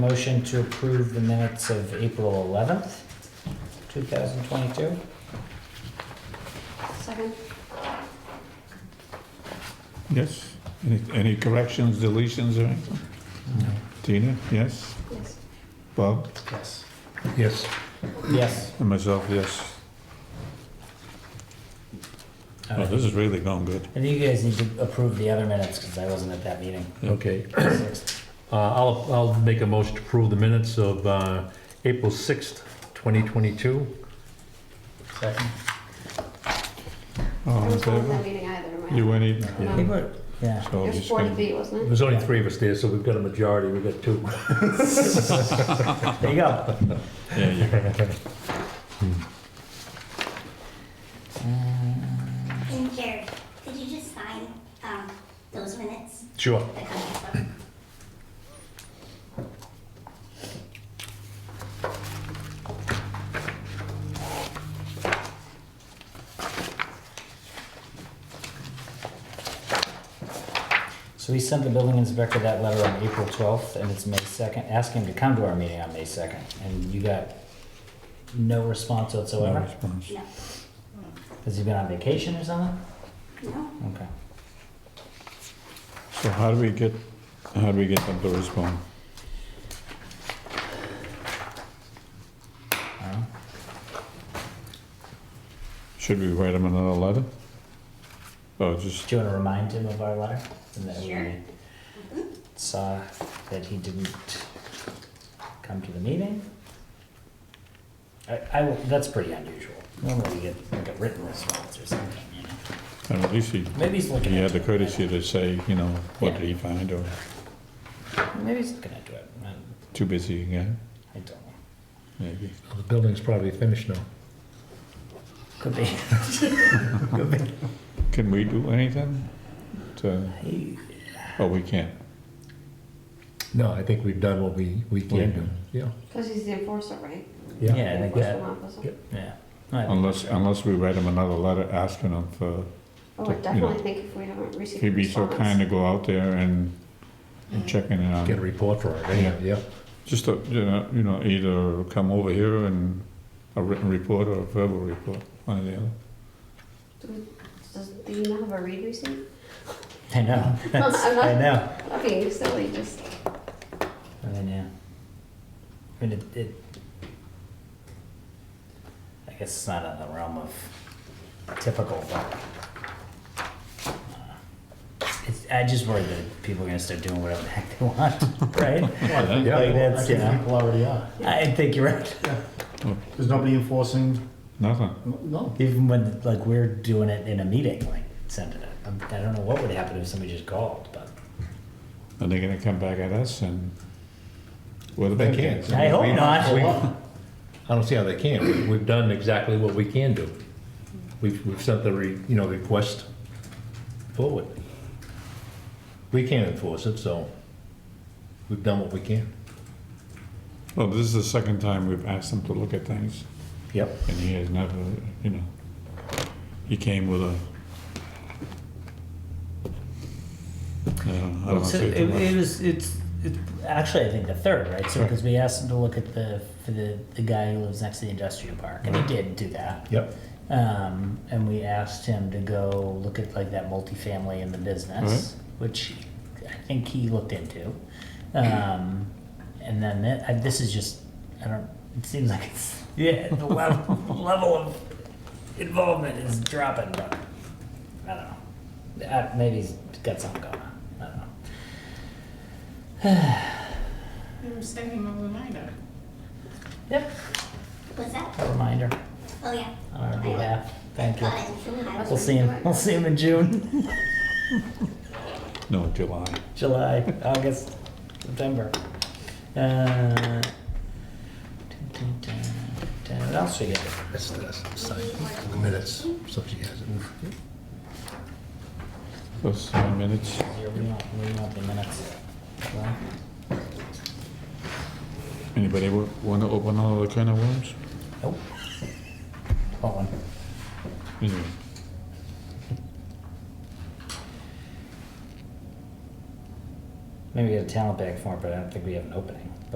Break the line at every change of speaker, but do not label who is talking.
Motion to approve the minutes of April 11th, 2022.
Second.
Yes. Any, any corrections, deletions, or anything? Tina, yes?
Yes.
Bob?
Yes.
Yes.
Yes.
And myself, yes.
All
Oh,
right.
this is really going good.
And you guys need to approve the other minutes because I wasn't at that meeting.
Okay, uh, I'll, I'll make a motion to approve the minutes of, uh, April sixth, twenty twenty-two.
Second.
I
All in
was not at that
favor?
meeting either, right?
You went in?
No.
They were, yeah.
So
It was
just
four to
gonna-
three, wasn't it?
There's only three of us there, so we've got a majority, we've got two.
There you go.
Yeah, you go.
And Jared, could you just sign um, those minutes
Sure.
that come up?
So we sent the building inspector that letter on April 12th and it's May 2nd. Ask him to come to our meeting on May 2nd. And you got no response
No
whatsoever?
response.
No,
Has he been on vacation or something?
no.
Okay.
So how do we get, how do we get them to respond?
I don't know.
Should we write them another letter? Or just,
Do you want to remind him of our letter? And that
Sure.
we saw that he didn't come to the meeting? I, I will- that's pretty unusual. Normally we get like a written response or something, you know?
and at least he,
Maybe he's looking
he had
into
the
it.
courtesy to say, you know, what did he find, or
Maybe he's looking into it. I
too busy again,
I don't know.
maybe.
The building's probably finished now.
Could be.
Can we do anything to,
He-
oh, we can't.
No, I think we've done what we, we
can do.
yeah.
Because he's the enforcer, right?
Yeah, I think
Enforcement
that,
officer.
yeah.
yeah. No, I think
Unless,
that's right.
unless we write him another letter asking him for,
Oh, I
Yeah.
definitely think if we haven't received a
he'd be so
response.
kind to go out there and, and check in
Get a
on.
report for it,
yeah,
yeah.
Just, a- you know, you know, either come over here and a written report or a verbal report, one or the other.
Does the email have a read receipt?
I know. That's-
I'm not-
I know.
I'm being silly, just,
I mean, yeah. I mean, it, it, I guess it's not in the realm of typical, but. uh, It's, I just worry that people are gonna start doing whatever the heck they want, right?
think-
Yeah.
Like
I
that's, you
think
know,
people already are.
I think you're right.
There's nobody enforcing,
Nothing.
no.
Even when, like, we're doing it in a meeting, like, send it, out. I don't know what would happen if somebody just called, but.
And they're gonna come back at us and, well, they can't.
I hope
We-
not.
I don't see how they can, We- we've done exactly what we can do. We've, we've sent the, re- you know, request forward. We can't enforce it, so we've done what we can.
Well, this is the second time we've asked him to look at things,
Yep.
and he has never, you know, he came with a. I don't- I don't wanna
So
say
it,
too much.
it was, it's, it's, actually, I think the third, right? So, because we asked him to look at the, for the, the guy who lives next to the industrial park, and he did do that.
Yep.
Um, and we asked him to go look at like that multifamily in the business, which I think he looked into. Um, and then thi- I- this is just, I don't, it seems like it's, yeah, the level, level of involvement is dropping, but I don't know. Uh, maybe he's got something going on. I don't know.
You send him a reminder.
Yep,
What's that?
a reminder
Oh, yeah.
on our behalf. Thank you.
Got it. I
We'll
was-
see him. We'll see him in June,
No, July.
July, August, September. Uh, What else we get?
That's, that's, the minutes, so she has it.
Those seven minutes.
Here, We want, we want the minutes. Well,
Anybody wa- wanna open another can of worms?
Nope. Hold on.
Anyway,
Maybe we got a talent bag for it, but I don't think we have an opening.